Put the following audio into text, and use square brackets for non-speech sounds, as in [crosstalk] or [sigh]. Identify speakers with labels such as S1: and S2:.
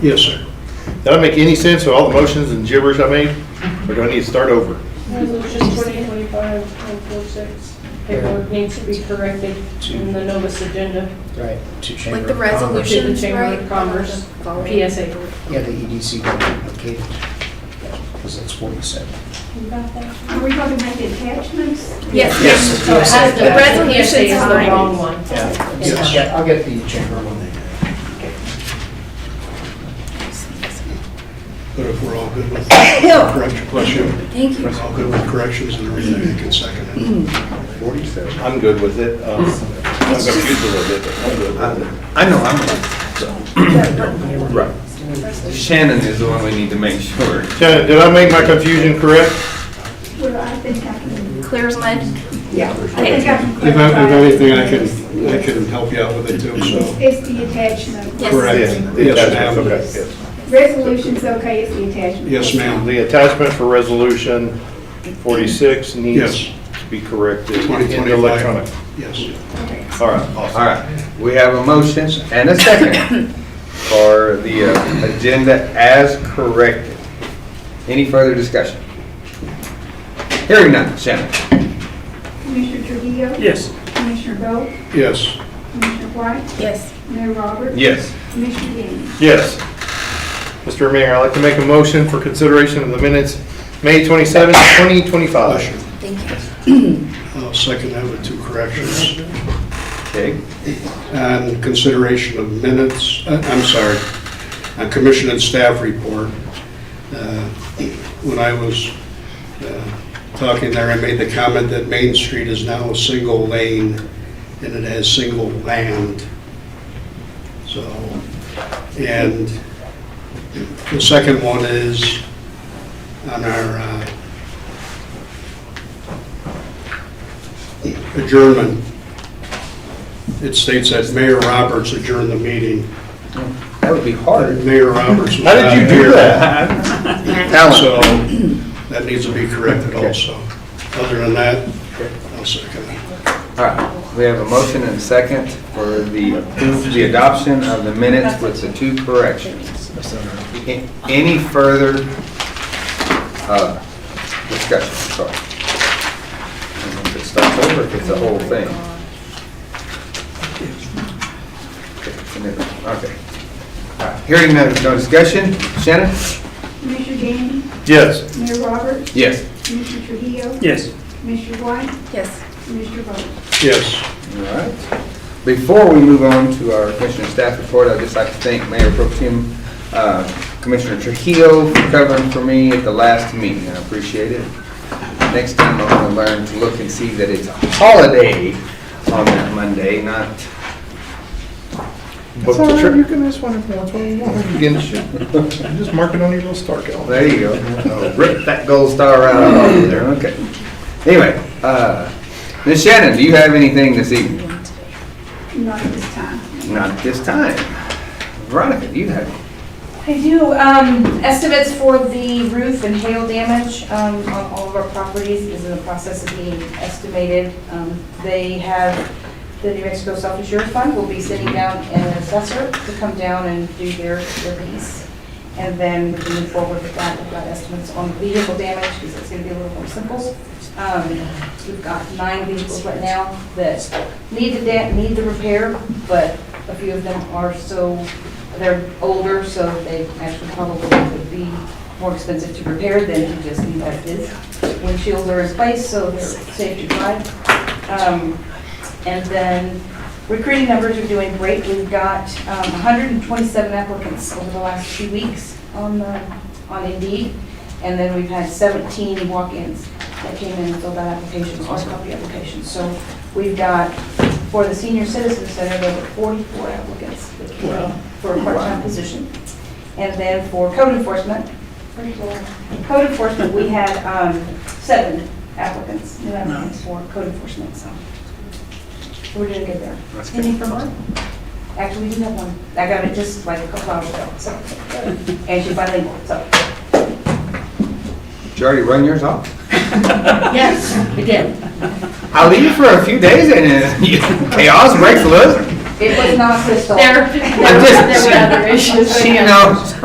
S1: Yes, sir.
S2: Did I make any sense of all the motions and gibberish I made? Or do I need to start over?
S3: Resolution 2025-146, paperwork needs to be corrected in the notice agenda.
S4: Right, to Chamber
S5: Like
S3: To
S4: of Commerce.
S5: the
S3: the
S5: resolutions,
S3: Chamber
S5: right?
S3: of Commerce, PSA.
S4: Yeah, the E EDC got duplicated, because that's forty-seven.
S6: Are we talking about the attachments?
S5: Yes,
S4: Yes.
S3: So it has to-
S5: The resolution's
S3: PSA is the
S5: fine.
S3: wrong one.
S4: [laughs] Yeah,
S3: Yes.
S4: Yeah, I'll get the Chamber one.
S1: But if we're all good with correction, bless you.
S5: thank you.
S1: If we're all good with corrections and everything, you can second it.
S2: Forty-seven. I'm good with it. Um, I'm confused a little bit, but I'm good with it.
S7: I know, I'm, so. Right. Shannon is the one we need to make sure.
S2: Shannon, did I make my confusion correct?
S6: Well, I think I can,
S5: Clear as mud.
S4: Yeah.
S6: I think I can.
S1: If I- if anything, I can, I can help you out with it too, so.
S6: It's the attachment.
S5: Yes.
S1: Correct. Yes,
S2: Yes,
S1: ma'am.
S2: okay, yes.
S6: Resolution's okay, it's the attachment.
S1: Yes, ma'am.
S2: The attachment for resolution forty-six needs
S1: Yes.
S2: to be corrected in
S1: 2025.
S2: electronic.
S1: Yes.
S2: All right, awesome.
S7: All right, we have a motion and a second for the uh, agenda as corrected. Any further discussion? Hearing none, Shannon?
S6: Commissioner Trujillo?
S8: Yes.
S6: Commissioner Bowe?
S1: Yes.
S6: Commissioner White?
S5: Yes.
S6: Mayor Roberts?
S7: Yes.
S6: Commissioner Gandy?
S2: Yes. Mr. Mayor, I'd like to make a motion for consideration of the minutes, May twenty-seventh, twenty
S1: Bless you.
S2: twenty-five.
S5: Thank you.
S1: I'll second that with two corrections.
S7: Okay,
S1: on consideration of minutes, uh, I'm sorry, on commission and staff report. Uh, When I was uh, talking there, I made the comment that Main Street is now a single lane and it has single land. So, and the second one is on our uh, adjournment it states that Mayor Roberts adjourned the meeting.
S4: That would be hard.
S1: Mayor Roberts was
S2: How
S1: not
S2: did you do
S7: Uh,
S1: here,
S2: that?
S7: [laughs]
S1: So that needs to be corrected also. Other than that, I'll second it.
S7: all right, we have a motion and a second for the, the adoption of the minutes with the two corrections. A- Any further uh, discussion, sorry? I don't know If it starts over, if it's the whole thing. Okay. All right, Hearing no no discussion, Shannon?
S6: Commissioner Gandy?
S2: Yes.
S6: Mayor Roberts?
S7: Yes.
S6: Commissioner Trujillo?
S8: Yes.
S6: Commissioner White?
S5: Yes.
S6: Commissioner Bowe?
S1: Yes.
S7: All right. Before we move on to our commissioner staff report, I'd just like to thank Mayor Pro Tem, uh Commissioner Trujillo for covering for me at the last meeting. I appreciate it. Next time I'm gonna learn to look and see that it's a holiday on that Monday, not.
S2: That's all right, you can just wonder if that's what you want. You can just- Just mark it on your little star calendar.
S7: There you go. Oh, Rip that gold star right out of there, okay. Anyway, uh, Ms. Shannon, do you have anything this evening?
S6: Not at this time.
S7: Not at this time. Veronica, do you have?
S9: I do. Um, Estimates for the roof and hail damage um, on all of our properties is in the process of being estimated. Um, They have, the New Mexico Self-Insurance Fund will be sitting down an assessor to come down and do their their piece. And then we can move forward with that. We've got estimates on vehicle damage because it's going to be a little more simple. Um, We've got nine vehicles right now that need the, da- need the repair, but a few of them are so they're older, so they actually probably would be more expensive to repair than to just leave as is. Windshields are in place, so they're safe to drive. Um, And then recruiting numbers are doing great. We've got um, 127 applicants over the last two weeks on, the- on Indeed. And then we've had 17 walk-ins that came in and filled out applications, hard copy applications. So we've got, for the senior citizen center, there were 44 applicants that came in for a part-time position. And then for code enforcement, code enforcement, we had um, seven applicants, new applicants for code enforcement, so we're doing good there.
S7: That's good.
S9: Anything from her? Actually, we do have one. I got it just like a couple hours ago, so. And she's bilingual, so.
S7: Did you already run yours off?
S9: Yes, we did.
S7: [laughs] I leave for a few days and uh, chaos breaks loose.
S9: It was not Crystal.
S3: There, there were other issues.
S7: [laughs]
S3: uh,
S7: She knows.